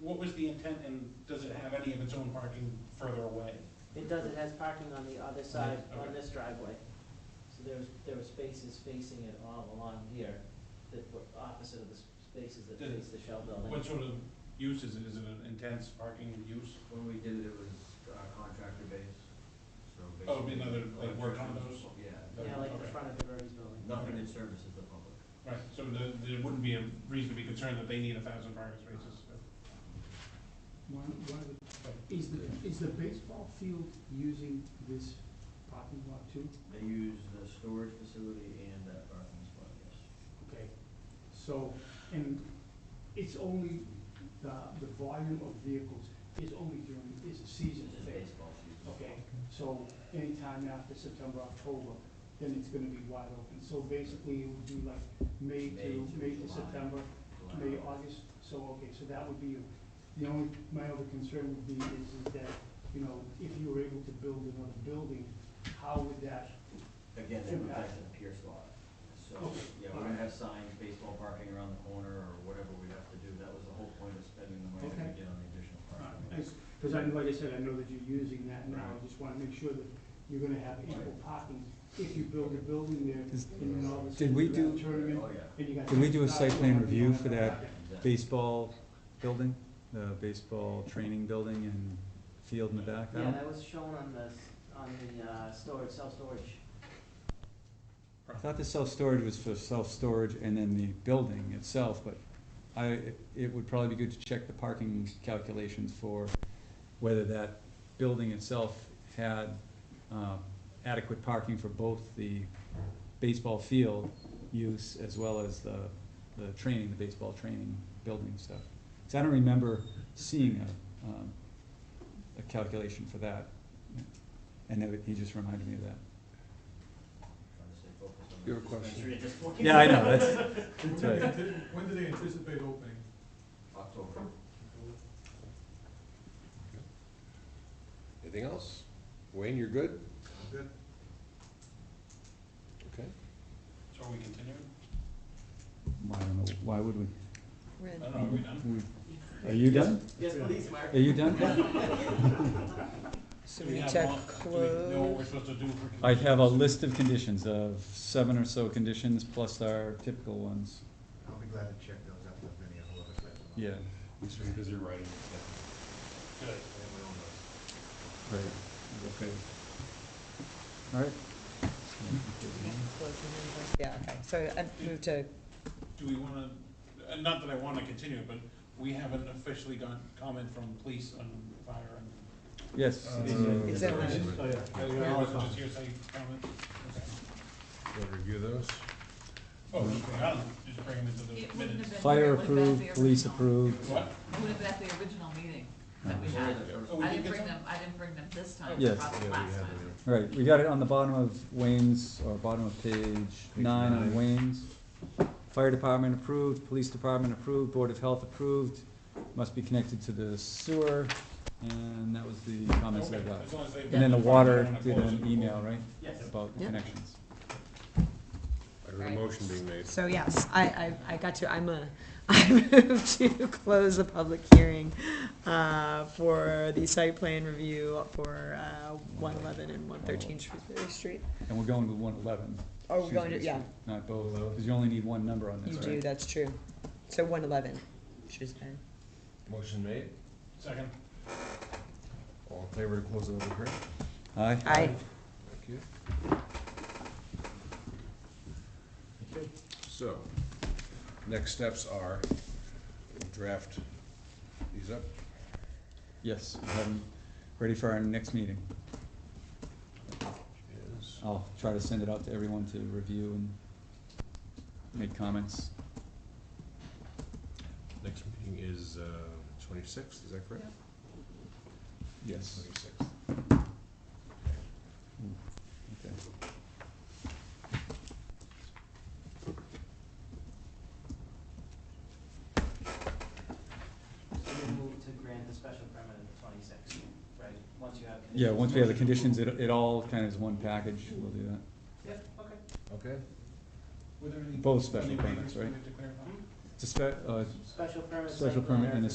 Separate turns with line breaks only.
what was the intent and does it have any of its own parking further away?
It does, it has parking on the other side,
okay.
on this driveway. So there's, there are spaces facing it all along here that were opposite of the s- spaces that
Did-
face the Shell
What
building.
sort of use is it? Is it an intense parking use?
When we did it, it was uh, contractor based, so basically.
Oh, it'd be another, like, work
electricians,
condos?
Yeah,
Yeah, like the
Okay.
front of the Verves building.
nothing that services the public.
Right, so there, there wouldn't be a reason to be concerned that they need a thousand parking spaces.
One, one of the, is the, is the baseball field using this parking lot too?
They use the storage facility and that parking spot, yes.
Okay, so, and it's only, the, the volume of vehicles is only during, is a season
It's a
thing.
baseball season.
Okay, so anytime after September, October, then it's gonna be wide open. So basically, it would be like May
May
to,
to
May to
July.
September, May, August, so, okay, so that would be, the only, my other concern would be is, is that, you know, if you were able to build another building, how would that,
Again, they protect the pier slot. So,
Okay.
yeah, we're gonna have signs, baseball parking around the corner or whatever we have to do. That was the whole point of spending the money that we
Okay.
did on the additional parking.
because uh, I, like I said, I know that you're using that now, I just wanna make sure that you're gonna have ample parking if you build a building there,
Is-
and then all of a
Did
sudden
we
you got a
do-
tournament,
Oh, yeah.
and you got.
Can we do a
60,000
site plan
people
review
on
for that?
Exactly.
baseball building, the baseball training building and field in the back. I
Yeah,
don't,
that was shown on the, s- on the, uh, storage, self-storage.
I thought the self-storage was for self-storage and then the building itself, but I, it would probably be good to check the parking calculations for whether that building itself had, um, adequate parking for both the baseball field use as well as the, the training, the baseball training building stuff. Cause I don't remember seeing a, um, a calculation for that. And that, he just reminded me of that.
Trying to stay focused on the
Your question.
dispensary at this point.
Yeah, I know, that's, that's right.
When do they anticipate opening?
October.
Anything else? Wayne, you're good?
Good.
Okay.
So are we continuing?
Why, I don't know, why would we?
I
Red.
don't know, are we done?
We- Are you done?
Yes, please, Mark.
Are you done?
So
Do we
we
have
check
all- do we know what we're
close.
supposed to do for?
I have a list of conditions, of seven or so conditions, plus our typical ones.
I'll be glad to check those out with many of the other sites.
Yeah,
He's been busy writing.
Good.
right. Okay. All right.
Yeah, okay, so I move to,
Do we wanna, uh, not that I wanna continue, but we haven't officially gotten comment from police on fire and.
Yes.
Uh,
it's, uh,
Exactly.
Oh, yeah.
We haven't Just hearsay comment? Okay.
Wanna review those?
Oh, okay, I don't, know, just bring them into the
It wouldn't have
minutes.
been.
Fire
it would've been at the
approved, police
original.
approved.
What?
It would have been at the original meeting that we had.
Oh, we
I
did
didn't
get
bring
some?
them, I didn't bring them this time,
Yes.
I brought them last time.
All right, we got it on the bottom of Wayne's, or bottom of page nine on
nine.
Wayne's. Fire department approved, police department approved, board of health approved, must be connected to the sewer, and that was the comments I
Okay,
got.
as long as they-
And then the water
Wanna
did
close
an
it.
email, right,
Yes.
about the
Yeah.
connections.
I heard a motion being made.
so yes, I, I, I got to, I'm a, I move to close the public hearing uh, for the site plan review for uh, 111 and 113 Shrewsbury Street.
And we're going with one eleven.
Oh, we're going to- yeah.
Not both, because you only need one number on
You
this,
do,
right?
that's true. So 111 Shrewsbury.
Motion made.
Second.
All in favor to close the public hearing?
Aye.
Aye.
Thank you. So, next steps are draft these up.
Yes, we have 'em ready for our next meeting.
Is-
I'll try to send it out to everyone to review and make comments.
Next meeting is uh, twenty-sixth, is that correct?
Yes.
Twenty-sixth.
Okay.
So you move to grant the special permit at the twenty-sixth, right? Once you have.
Yeah,
conditions.
once we have the conditions, it, it all kind of is one package, we'll do that.
Yep, okay.
Okay.
Were there any-
Both special
any waivers
permits,
we
right?
need to clarify?
It's a spe- uh,
Special permit.
Special
site plan
permit and a